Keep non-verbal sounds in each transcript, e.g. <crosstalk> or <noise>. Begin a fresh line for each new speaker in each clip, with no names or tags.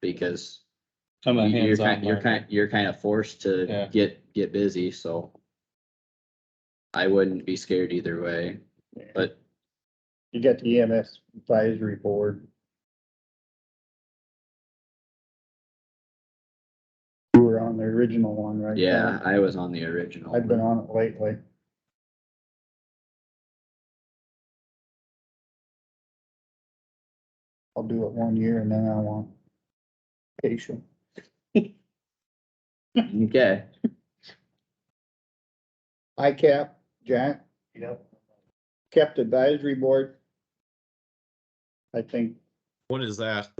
because
I'm a
you're
hands on.
kind, you're kind, you're kind of forced to
Yeah.
get, get busy, so. I wouldn't be scared either way, but
You got the EMS advisory board. You were on the original one, right?
yeah, I was on the original.
I've been on it lately. I'll do it one year and then I want vacation.
<laughs> Okay,
ICAP, Jack,
Yep.
kept advisory board. I think
What is that?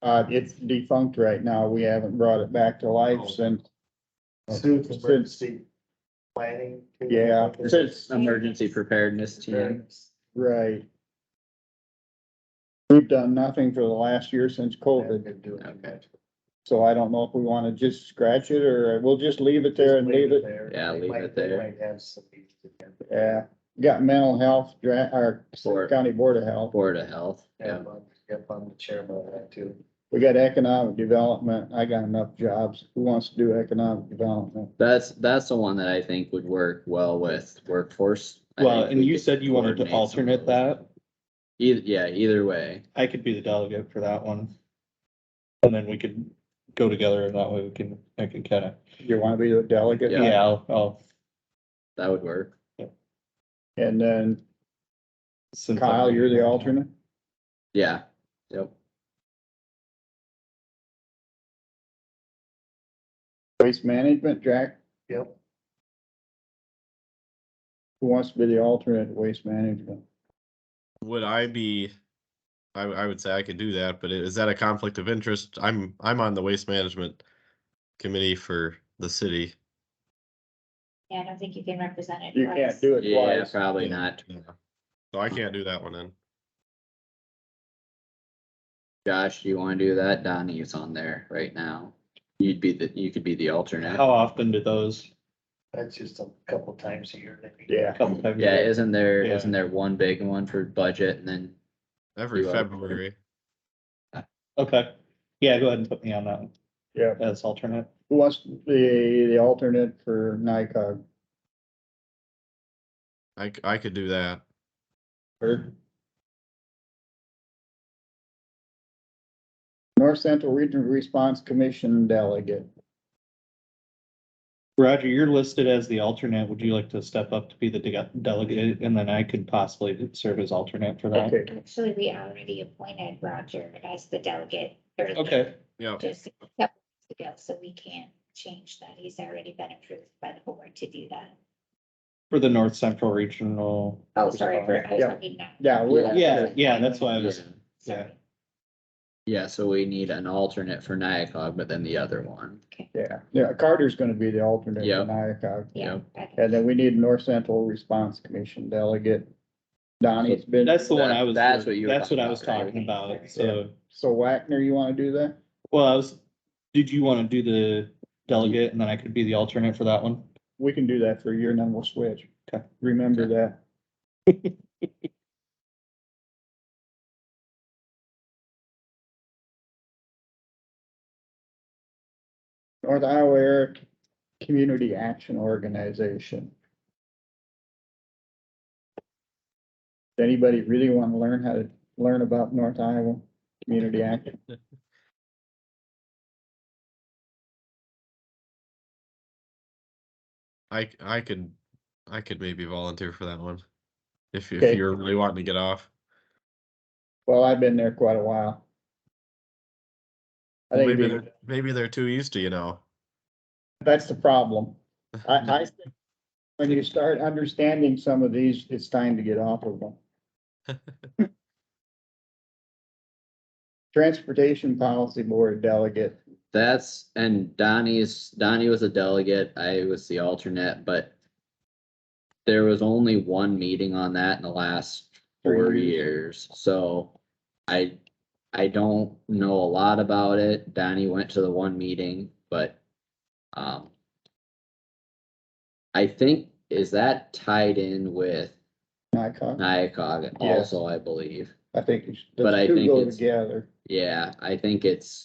Uh, it's defunct right now. We haven't brought it back to life since,
Since emergency planning.
Oh,
too.
Yeah.
this is emergency preparedness team.
right. We've done nothing for the last year since COVID,
Okay.
so I don't know if we wanna just scratch it or uh, we'll just leave it there and leave it.
there.
Yeah,
They
leave
might-
it
they
there.
might have some meetings again.
Yeah, got mental health, dra- our
Board.
county board of health.
Board of Health, yeah,
Yep, I'm- yep, I'm the chairman of that too.
We got economic development. I got enough jobs. Who wants to do economic development?
that's, that's the one that I think would work well with workforce. I
Well,
think
and
we
you
could
said you wanted to
coordinate some of
alternate
those.
that.
Either, yeah, either way,
I could be the delegate for that one. And then we could go together and that way we can, I can kind of,
You wanna be the delegate?
Yeah.
yeah, I'll, I'll.
that would work.
And then
since I'm-
Kyle, you're the alternate?
Yeah, yep.
Waste management, Jack,
Yep,
who wants to be the alternate to waste management?
Would I be? I, I would say I could do that, but i- is that a conflict of interest? I'm, I'm on the waste management committee for the city.
Yeah, I don't think you can represent it.
You
twice.
can't do it
Yeah,
twice.
probably not.
So I can't do that one then.
Josh, you wanna do that? Donnie's on there right now. You'd be the, you could be the alternate.
How often do those?
that's just a couple times a year. they meet.
Yeah.
Couple times. a
Yeah,
year?
isn't there,
Yeah.
isn't there one big one for budget and then,
Every
You are.
February,
Okay. Yeah, go ahead and put me on that one
Yeah.
as alternate.
Who wants to be the alternate for NICOG?
I, c- I could do that.
Herb? North Central Regional Response Commission Delegate.
Roger, you're listed as the alternate. Would you like to step up to be the de- delegate? And then I could possibly serve as alternate for that.
Okay,
Actually, we already appointed Roger as the delegate. or
Okay.
Yeah,
Just a couple weeks ago, so we can't change that. He's already been approved by the board to do that.
For the North Central Regional.
Oh, sorry for, I was
Yeah.
talking now.
yeah, we,
Yeah, yeah, that's why I was,
yeah,
Sorry.
yeah, so we need an alternate for NIACOG, but then the other one.
yeah, yeah, Carter's gonna be the alternate
Yeah.
for NICOG.
Yeah. okay.
And then we need North Central Response Commission Delegate. Donnie's been,
that's the one I was,
That's what you were
that's what I was
talking
talking
about, right?
about. So,
so Wagner, you wanna do that?
well, I was, did you want to do the delegate and then I could be the alternate for that one?
We can do that for a year and then we'll switch.
Okay.
Remember
Okay.
that. <laughs> North Iowa Air Community Action Organization. Does Anybody really want to learn how to learn about North Iowa Community Action?
I, c- I could, I could maybe volunteer for that one. If, you-
Okay.
if you're really wanting to get off.
Well, I've been there quite a while. I think it'd
Maybe
be-
they're, maybe they're too used to, you know.
That's the problem. I, I think when you start understanding some of these, it's time to get off of them.
<laughs>
Transportation Policy Board Delegate,
That's, and Donnie's, Donnie was a delegate, I was the alternate, but there was only one meeting on that in the last four
Three
years, so I, I don't know a lot about it. Donnie went to the one meeting, but, um, I think, is that tied in with
NICOG,
NIACOG
Yes.
also, I believe?
I think you should-
But I
the two
think
go
it's-
together.
Yeah, I think it's